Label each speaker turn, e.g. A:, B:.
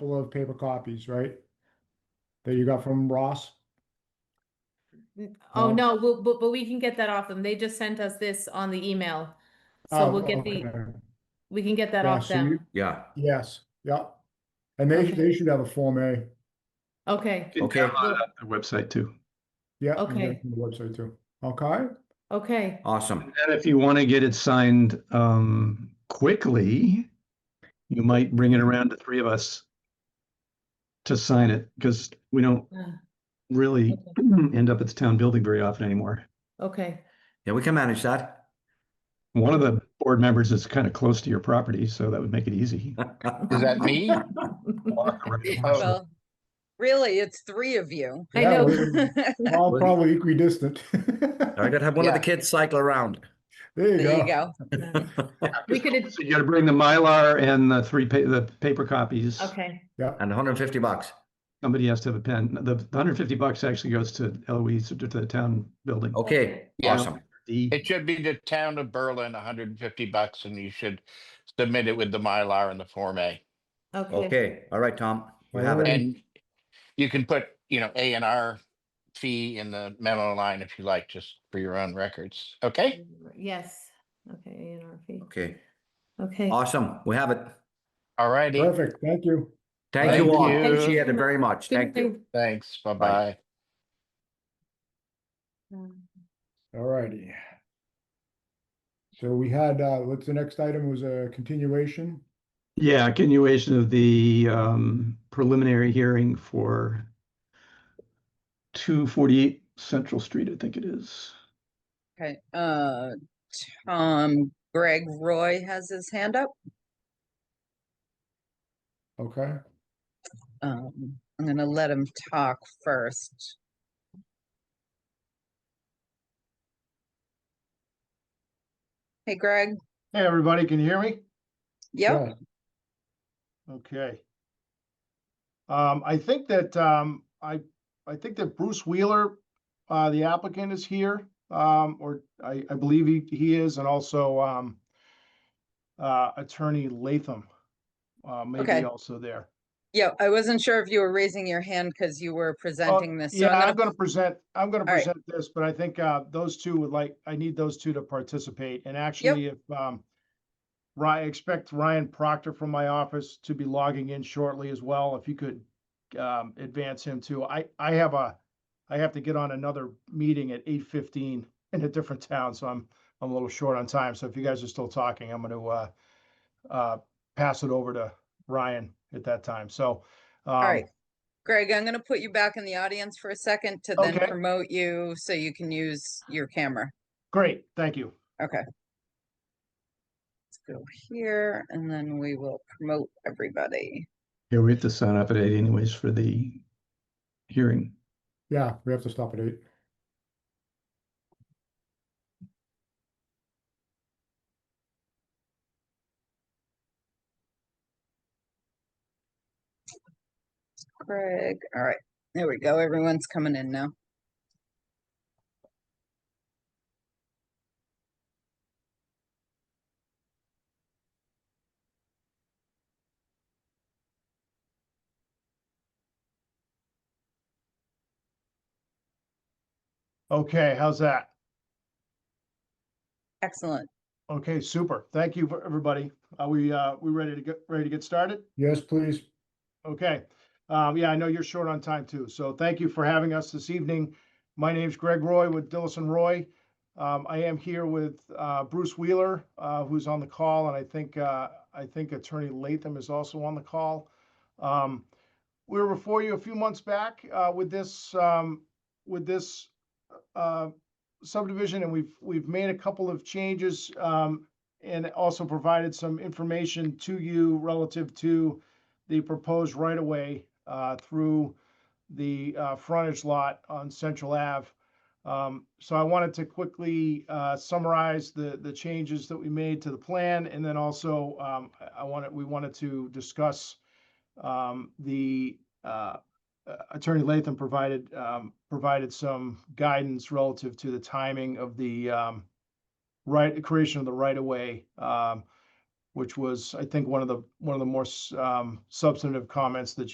A: couple of paper copies, right? That you got from Ross?
B: N- Oh,
A: No?
B: no, we'll, but, but we can get that off them. They just sent us this on the email. So
A: Oh,
B: we'll get the,
A: okay.
B: we can get that
A: Yeah,
B: off
A: so you-
B: them.
C: Yeah,
A: Yes, yeah. And they,
B: Okay.
A: they should have a Form A,
B: Okay,
D: You
C: Okay.
D: can download it off their website too.
A: yeah. you can get
B: Okay.
A: it from the Website too, okay?
B: okay.
C: awesome.
D: And if you want to get it signed um, quickly, you might bring it around to three of us to sign it because we don't
B: Uh,
D: really end up at the town building very often anymore.
B: Okay,
C: Yeah, we can manage that.
D: One of the board members is kind of close to your property, so that would make it easy.
E: Is that me?
D: Oh, Well,
F: Well, really, it's three of you.
B: I
A: Yeah,
B: know.
A: we're All
C: Well-
A: probably equidistant.
C: I
A: There
C: gotta have one of the
F: Yeah.
C: kids cycle around.
F: There you go.
B: We could,
D: So you gotta bring the Mylar and the three pa- the paper copies.
B: okay,
C: And hundred and fifty bucks.
D: Somebody has to have a pen. The the hundred fifty bucks actually goes to Eloise, to the town building.
C: Okay,
E: Yeah.
C: awesome.
D: The-
E: It should be the town of Berlin, hundred and fifty bucks, and you should submit it with the Mylar and the Form A.
B: okay,
C: Okay, all right, Tom. You have
A: Alright.
C: it.
E: And you can put, you know, A and R fee in the memo line if you like, just for your own records, okay?
B: yes, okay, A and R fee.
C: Okay,
B: okay.
C: awesome. We have it.
E: All righty,
A: Perfect, thank you.
C: Thank
E: Thank
C: you all.
E: you.
C: Appreciate it very much.
B: Good
C: Thank you.
B: thing.
E: thanks, bye-bye.
B: Um,
A: Alrighty. So we had, uh, what's the next item was a continuation?
D: Yeah, continuation of the um preliminary hearing for two forty-eight Central Street, I think it is.
F: Okay, uh, Tom, Greg Roy has his hand up.
A: Okay,
F: Um, I'm gonna let him talk first. Hey, Greg.
G: Hey, everybody, can you hear me?
F: Yep,
A: yeah,
G: Okay. Um, I think that, um, I, I think that Bruce Wheeler, uh, the applicant is here, um, or I, I believe he, he is, and also, um, uh, attorney Latham, uh,
F: Okay.
G: maybe also there.
F: yeah, I wasn't sure if you were raising your hand because you were
G: Oh,
F: presenting this. so
G: Yeah, I'm
F: gonna-
G: gonna present, I'm gonna
F: All right.
G: present this, but I think, uh, those two would like, I need those two to participate, and actually, if, um, Ryan, expect Ryan Proctor from my office to be logging in shortly as well, if you could, um, advance him too. I, I have a, I have to get on another meeting at eight fifteen in a different town, so I'm, I'm a little short on time, so if you guys are still talking, I'm gonna, uh, uh, pass it over to Ryan at that time, so. um, All
F: right. Greg, I'm gonna put you back in the audience for a second to then
G: Okay.
F: promote you so you can use your camera.
G: Great, thank you.
F: Let's go here and then we will promote everybody.
D: Yeah, we have to sign up at eight anyways for the hearing.
A: yeah, we have to stop at eight.
F: Greg, all right, there we go. Everyone's coming in now.
G: Okay, how's that?
F: Excellent.
G: Okay, super. Thank you for everybody. Are we, uh, we ready to get, ready to get started?
A: Yes, please.
G: Okay. Um, yeah, I know you're short on time too, so thank you for having us this evening. My name's Greg Roy with Dillison Roy. Um, I am here with, uh, Bruce Wheeler, uh, who's on the call, and I think, uh, I think Attorney Latham is also on the call. Um, we were before you a few months back, uh, with this, um, with this, uh, subdivision, and we've, we've made a couple of changes, um, and also provided some information to you relative to, the proposed right-of-way uh, through the uh, frontage lot on Central Ave. Um, So I wanted to quickly uh, summarize the, the changes that we made to the plan, and then also um, I- I wanted, we wanted to discuss um, the uh, uh, Attorney Latham provided, um, provided some guidance relative to the timing of the um, right, creation of the right-of-way um, which was, I think, one of the, one of the more s- um, substantive comments that